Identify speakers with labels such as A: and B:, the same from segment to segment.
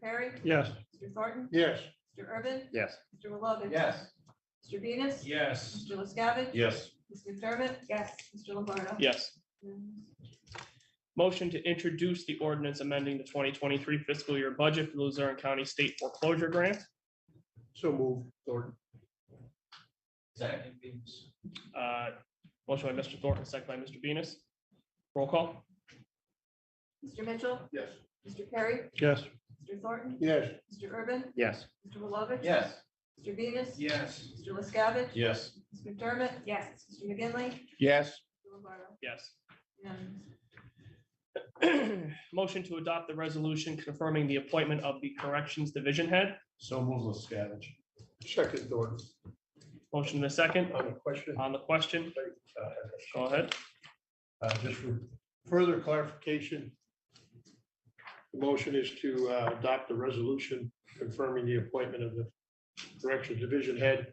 A: Perry?
B: Yes.
A: Mr. Thornton?
B: Yes.
A: Mr. Urban?
C: Yes.
A: Mr. Willoughby?
D: Yes.
A: Mr. Venus?
B: Yes.
A: Mr. LaScavitch?
B: Yes.
A: Ms. McDermott? Yes. Mr. Lombardo?
C: Yes.
A: Yes.
C: Motion to introduce the ordinance amending the twenty twenty-three fiscal year budget for Luzerne County State Foreclosure Grant.
B: So move, Thornton.
D: Second, Venus.
C: Uh, Motion by Mr. Thornton, second by Mr. Venus. Roll call.
A: Mr. Mitchell?
B: Yes.
A: Mr. Perry?
B: Yes.
A: Mr. Thornton?
B: Yes.
A: Mr. Urban?
C: Yes.
A: Mr. Willoughby?
D: Yes.
A: Mr. Venus?
B: Yes.
A: Mr. LaScavitch?
B: Yes.
A: Ms. McDermott? Yes. Mr. McGinley.
B: Yes.
A: Mr. Lombardo?
C: Yes.
A: Unanimous.
C: Motion to adopt the resolution confirming the appointment of the Corrections Division Head.
B: So move, Liscavige. Second, Thornton.
C: Motion in a second
B: On the question,
C: on the question.
B: uh,
C: Go ahead.
B: uh, just for further clarification, the motion is to uh, adopt the resolution confirming the appointment of the Corrections Division Head.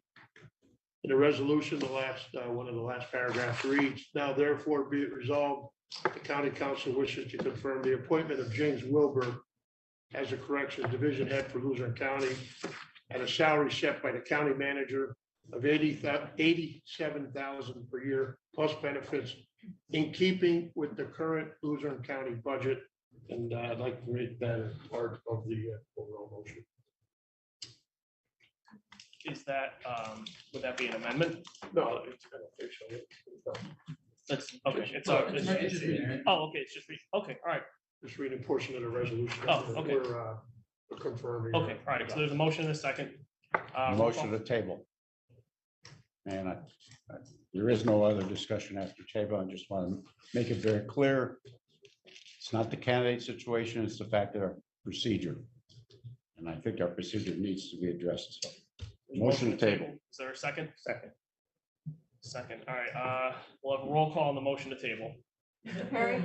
B: In the resolution, the last, uh, one of the last paragraphs reads, now therefore be it resolved, the county council wishes to confirm the appointment of James Wilbur as a Corrections Division Head for Luzerne County at a salary set by the county manager of eighty, eighty-seven thousand per year plus benefits in keeping with the current Luzerne County budget. And uh, I'd like to make that as part of the uh, overall motion.
C: Is that, um, would that be an amendment?
B: No, it's kind of official.
C: That's, okay, it's, all- it's- oh, okay, it's just, re- okay, all right,
B: Just reading a portion of the resolution.
C: Oh, okay.
B: We're uh, we're confirming.
C: okay, all right. So there's a motion in a second. Uh, roll call.
E: Motion to table. And I, I- there is no other discussion after table. I just want to make it very clear. It's not the candidate situation, it's the fact of our procedure. And I think our procedure needs to be addressed. Motion to table.
C: Is there a second? Second. Second, all right, uh, we'll have a roll call on the motion to table.
A: Mr. Perry?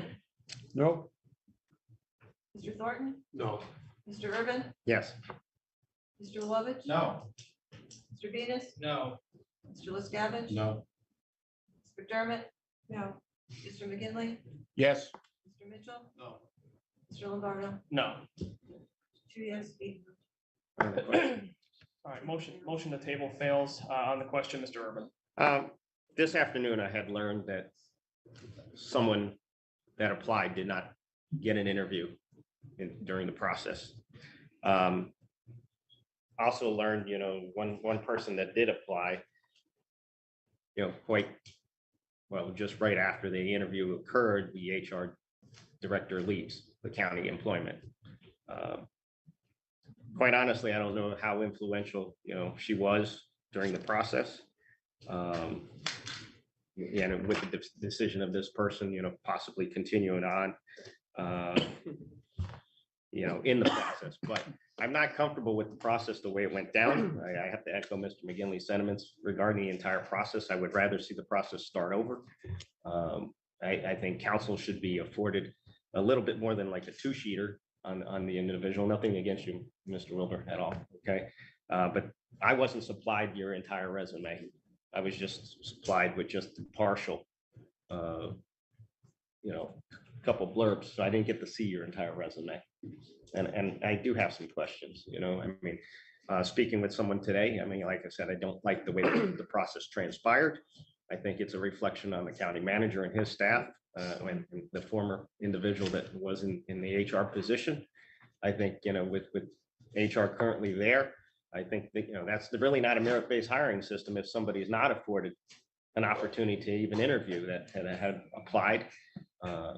E: No?
A: Mr. Thornton?
B: No.
A: Mr. Urban?
E: Yes.
A: Mr. Lovich?
D: No.
A: Mr. Venus?
D: No.
A: Mr. LaScavitch?
E: No.
A: Mr. McDermott? No. Mr. McGinley.
E: Yes.
A: Mr. Mitchell?
B: No.
A: Mr. Lombardo?
C: No.
A: Two yes, eight no.
C: All right, motion, motion to table fails. Uh, on the question, Mr. Urban.
F: Um, This afternoon, I had learned that someone that applied did not get an interview in- during the process. Um, Also learned, you know, one, one person that did apply, you know, quite, well, just right after the interview occurred, the HR director leaves the county employment. Um, Quite honestly, I don't know how influential, you know, she was during the process um, yeah, and with the de- decision of this person, you know, possibly continuing on, uh, you know, in the process, but I'm not comfortable with the process the way it went down. I, I have to echo Mr. McGinley's sentiments regarding the entire process. I would rather see the process start over. Um, I, I think council should be afforded a little bit more than like a two-sheeter on, on the individual. Nothing against you, Mr. Wilbur, at all, okay? Uh, but I wasn't supplied your entire resume. I was just supplied with just the partial, uh, you know, couple blurbs, so I didn't get to see your entire resume. And, and I do have some questions, you know, I mean, uh, speaking with someone today, I mean, like I said, I don't like the way the process transpired. I think it's a reflection on the county manager and his staff, uh, and and the former individual that was in, in the HR position. I think, you know, with, with HR currently there, I think that, you know, that's the- really not a merit-based hiring system if somebody is not afforded an opportunity to even interview that that had applied. Uh,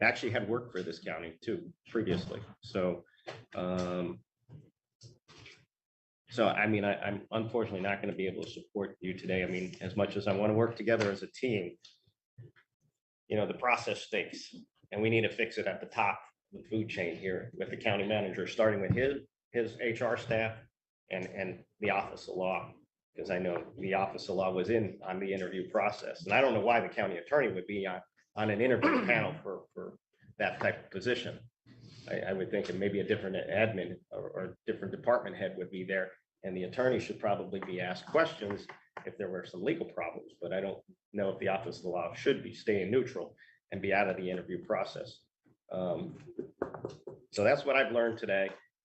F: I Actually had worked for this county too previously, so. um, So I mean, I, I'm unfortunately not going to be able to support you today. I mean, as much as I want to work together as a team, you know, the process stinks and we need to fix it at the top of the food chain here with the county manager, starting with his, his HR staff and, and the office of law. Because I know the office of law was in on the interview process, and I don't know why the county attorney would be on, on an interview panel for, for that type of position. I, I would think that maybe a different admin or, or different department head would be there, and the attorney should probably be asked questions if there were some legal problems, but I don't know if the office of law should be staying neutral and be out of the interview process. Um, So that's what I've learned today.